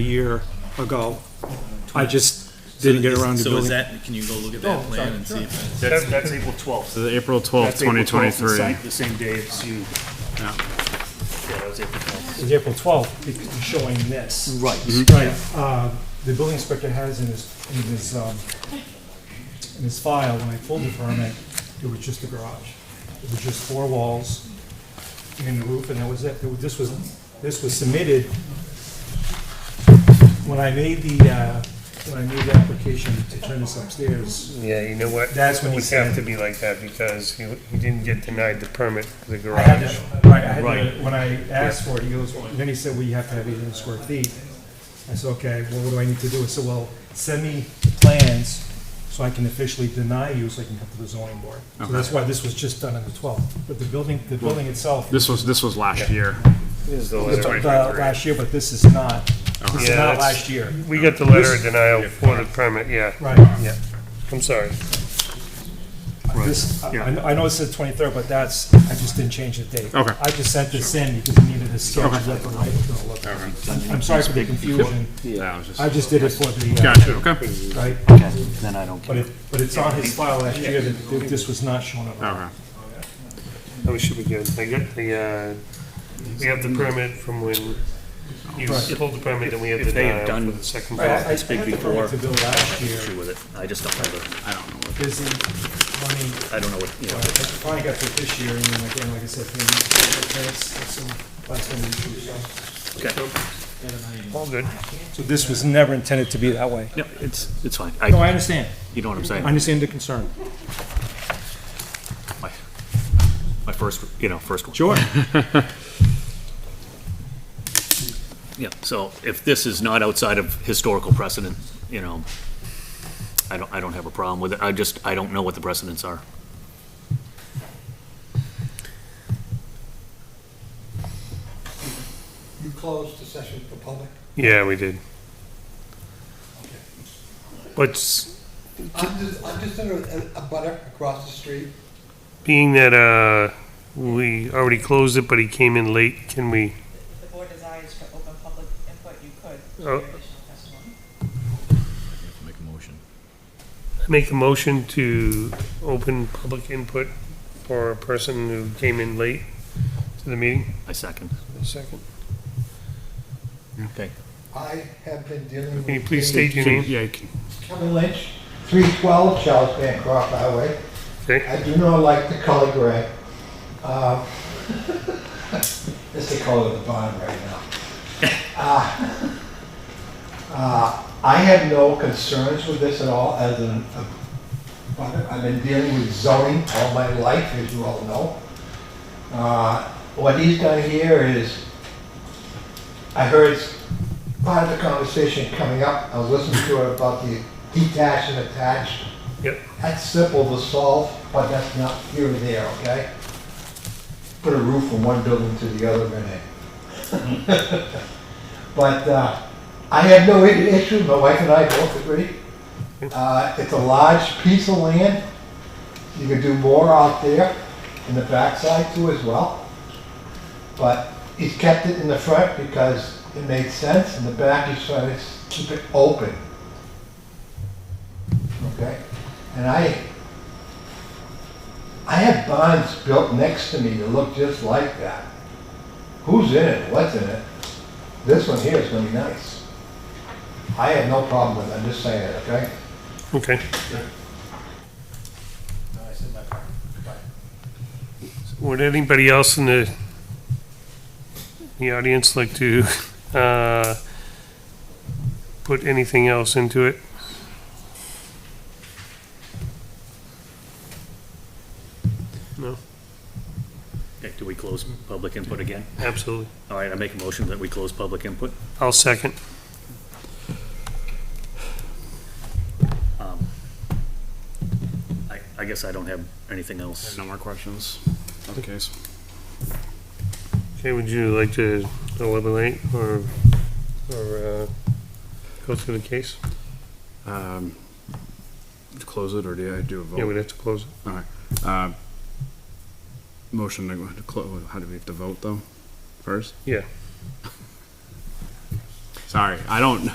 a year ago. I just didn't get around to So building. is that, can you go look at that plan and see if? That's, that's April twelfth. The April 12th, 2023. The same day as you. Yeah, that was April twelfth. It's April 12th, because you're showing this. Right. Mm-hmm. Right. uh, The building inspector has in his, in his, um, in his file, when I pulled the permit, it was just a garage. It was just four walls and the roof, and that was it. It was- This was, this was submitted, when I made the, uh, when I made the application to turn this upstairs, Yeah, you know what? That's what It he would said. have to be like that because he, he didn't get denied the permit for the I had garage. to, right, I had Right. to, when I asked for it, he goes, well, then he said, well, you have to have eight hundred square feet. I said, okay, well, what do I need to do? I said, well, send me the plans so I can officially deny you, so I can come to the zoning board. So that's why this was just done on the twelfth, but the building, the building itself, This was, this was last year. Is the was letter. done last year, but this is not, this is Yeah, not that's- last year. We got the letter of denial for the permit, yeah. Right. Yeah. I'm sorry. This, I, yeah. I know- I know it said twenty-third, but that's, I just didn't change the date. Okay. I just sent this in because I needed a sketch of what the right was gonna look like. I'm sorry for the confusion. That was I just just- did it for the. uh, Gotcha, okay. Right, Then I don't but it, but it's on his file last year that that this was not shown up. Okay. That should be good. I got the, uh, we have the permit from when you Right. pulled the permit and we have the If they had denial done- for the second Right, I- part. I It's big had the before. permit to bill last Issue year, with it. I just don't know the, I don't know. what- busy, money, I don't know what, you I know, finally got to it this year, and then again, like I said, things, that's some, that's some issues. so. All good. So this was never intended to be that way? no, it's, it's fine. No, I, I understand, you know what I'm I saying? understand the concern. My my first, you know, first one. Sure. Yeah, so if this is not outside of historical precedent, you know, I don't, I don't have a problem with it. I just, I don't know what the precedents are. You closed the session for public. Yeah, we did. But I'm just, I'm just in a, a butter across the street. being that, uh, we already closed it, but he came in late, can we, the board desires for open public input, you could, Oh. for additional testimony. Make a motion. make a motion to open public input for a person who came in late to the meeting? I second. Second. Okay. I have been dealing with. Can you please state your Can- name? Yeah, you can- Kevin Lynch, three twelve Charles Bancroft Highway. Okay. I do not like the color gray. Um, It's the color of the barn right now. Uh, uh, I have no concerns with this at all as an, a- I've been dealing with zoning all my life, as you all know. Uh, What he's done here is, I heard part of the conversation coming up, I was listening to it about the detached and attached. Yep. That's simple to solve, but that's not here or there, okay? Put a roof from one building to the other, Renee. But uh, I have no i- issue, my wife and I both agree. Uh, It's a large piece of land. You could do more out there in the backside too as well. But he's kept it in the front because it made sense. In the back, he's trying to s- keep it open. Okay? And I, I have bonds built next to me that look just like that. Who's in it? What's in it? This one here is gonna be nice. I have no problem with it, I'm just saying it, okay? Okay. Would anybody else in the, the audience like to, uh, put anything else into it? Okay, do we close public input again? Absolutely. All right, I make a motion that we close public input. I'll second. Um, I, I guess I don't have anything else. No more questions. Okay. case. Okay, would you like to elaborate or, or, uh, go through the case? Um, Close it, or do I do a Yeah, we'd vote? have to close it. Uh, Motion to close, how do we have to vote, though, first? Yeah. Sorry, I don't,